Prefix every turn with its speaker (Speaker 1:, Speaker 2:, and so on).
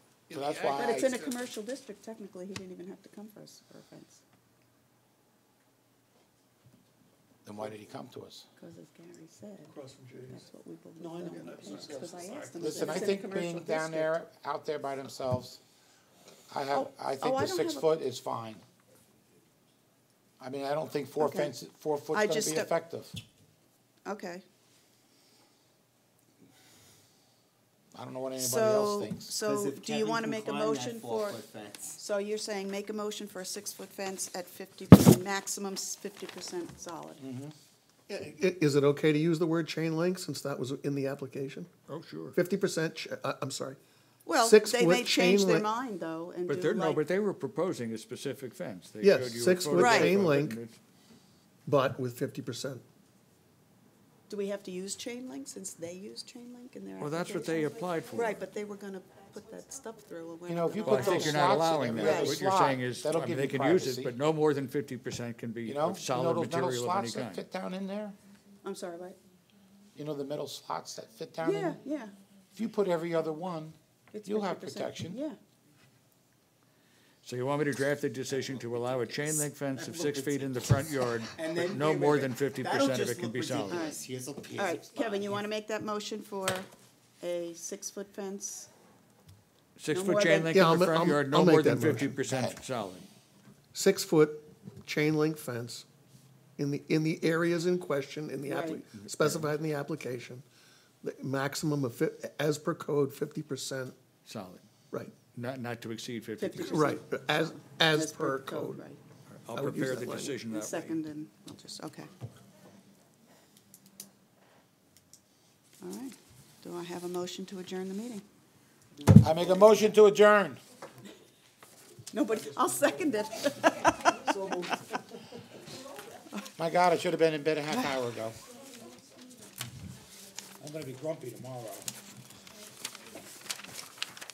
Speaker 1: in
Speaker 2: So
Speaker 1: the
Speaker 2: that's
Speaker 1: ag-
Speaker 2: why
Speaker 1: But
Speaker 2: I-
Speaker 3: But it's in a
Speaker 2: Right.
Speaker 3: commercial district, technically, he didn't even have to come for us for a fence,
Speaker 2: Then why did he come to us?
Speaker 3: because as Gary said,
Speaker 4: across from Jay's.
Speaker 3: that's what we both, no, I know, because I asked him.
Speaker 2: Listen,
Speaker 3: if
Speaker 2: I
Speaker 3: it's in a
Speaker 2: think
Speaker 3: commercial
Speaker 2: being down
Speaker 3: district.
Speaker 2: there, out there by themselves, I have,
Speaker 3: Oh,
Speaker 2: I
Speaker 3: oh,
Speaker 2: think
Speaker 3: I
Speaker 2: the
Speaker 3: don't
Speaker 2: six
Speaker 3: have a-
Speaker 2: foot is fine. I mean, I don't think four
Speaker 3: Okay.
Speaker 2: fences, four foot's
Speaker 3: I
Speaker 2: gonna be
Speaker 3: just don't-
Speaker 2: effective.
Speaker 3: Okay,
Speaker 2: I don't know what anybody else
Speaker 3: so,
Speaker 2: thinks.
Speaker 3: so do you wanna make a motion for? So you're saying make a motion for a six-foot fence at fifty, maximum fifty percent solid?
Speaker 2: Mm-hmm.
Speaker 4: I- Is it okay to use the word chain link since that was in the application?
Speaker 1: Oh, sure.
Speaker 4: Fifty percent, I, I'm sorry.
Speaker 3: Well,
Speaker 4: Six
Speaker 3: they may
Speaker 4: foot
Speaker 3: change
Speaker 4: chain
Speaker 3: their
Speaker 4: link.
Speaker 3: mind, though, and do
Speaker 1: But they're, no,
Speaker 3: like-
Speaker 1: but they were proposing a specific fence. They
Speaker 4: Yes,
Speaker 1: showed you a
Speaker 4: six-foot
Speaker 1: photograph
Speaker 3: chain
Speaker 1: of it,
Speaker 4: link.
Speaker 1: and it's-
Speaker 4: But with fifty percent.
Speaker 3: do we have to use chain link since they use chain link in their application?
Speaker 1: Well, that's what they applied for.
Speaker 3: Right, but they were gonna put that stuff through. and we're
Speaker 2: You
Speaker 3: not
Speaker 2: know, if you
Speaker 3: gonna
Speaker 1: Well,
Speaker 2: put
Speaker 3: allow
Speaker 1: I think
Speaker 2: those
Speaker 1: you're
Speaker 3: that.
Speaker 1: not
Speaker 2: slots
Speaker 1: allowing
Speaker 2: in
Speaker 1: that.
Speaker 3: every
Speaker 1: What you're
Speaker 2: slot.
Speaker 1: saying is, I
Speaker 2: That'll
Speaker 1: mean,
Speaker 2: give
Speaker 1: they
Speaker 2: you
Speaker 1: can use it,
Speaker 2: privacy.
Speaker 1: but no more than fifty percent can be
Speaker 2: You know,
Speaker 1: of
Speaker 2: you know
Speaker 1: solid
Speaker 2: those metal
Speaker 1: material of any
Speaker 2: slots that
Speaker 1: kind.
Speaker 2: fit down in there?
Speaker 3: I'm sorry, what?
Speaker 2: You know the metal slots that fit down in?
Speaker 3: Yeah, yeah.
Speaker 2: If you put every other one,
Speaker 3: it's
Speaker 2: you'll have
Speaker 3: 50%.
Speaker 2: protection.
Speaker 3: Yeah,
Speaker 1: So you want me to draft a decision to allow a chain link fence of six feet in the front yard,
Speaker 5: And
Speaker 1: but
Speaker 5: then-
Speaker 1: no
Speaker 5: wait, wait,
Speaker 1: more
Speaker 5: wait.
Speaker 1: than fifty
Speaker 5: That'll
Speaker 1: percent of
Speaker 5: just
Speaker 1: it can
Speaker 5: look
Speaker 1: be solid?
Speaker 5: ridiculous. Here's a piece
Speaker 3: all
Speaker 5: of
Speaker 3: right,
Speaker 5: spine.
Speaker 3: Kevin, you wanna make that motion for a six-foot fence? No
Speaker 1: Six-foot
Speaker 3: more
Speaker 1: chain
Speaker 3: than-
Speaker 1: link
Speaker 4: Yeah,
Speaker 1: in the
Speaker 4: I'll-
Speaker 1: front
Speaker 4: I'll-
Speaker 1: yard,
Speaker 4: I'll
Speaker 1: no
Speaker 4: make
Speaker 1: more than
Speaker 4: that motion.
Speaker 1: fifty percent solid.
Speaker 4: Six-foot chain link fence in the, in the areas in question, in the appli-
Speaker 3: Right.
Speaker 4: specified in the application. The maximum of fif, as per code, fifty percent,
Speaker 1: Solid,
Speaker 4: right,
Speaker 1: not, not to exceed fifty percent.
Speaker 3: 50%.
Speaker 4: right, as, as
Speaker 3: That's
Speaker 4: per code.
Speaker 3: Right,
Speaker 1: I'll
Speaker 4: I would use
Speaker 1: prepare
Speaker 4: that
Speaker 1: the
Speaker 4: language.
Speaker 1: decision
Speaker 3: and
Speaker 1: that way.
Speaker 3: second, and I'll just, okay. All right, do I have a motion to adjourn the meeting?
Speaker 2: I make a motion to adjourn.
Speaker 3: Nobody, I'll second it.
Speaker 2: My God, I should have been in bed a half hour ago. I'm gonna be grumpy tomorrow.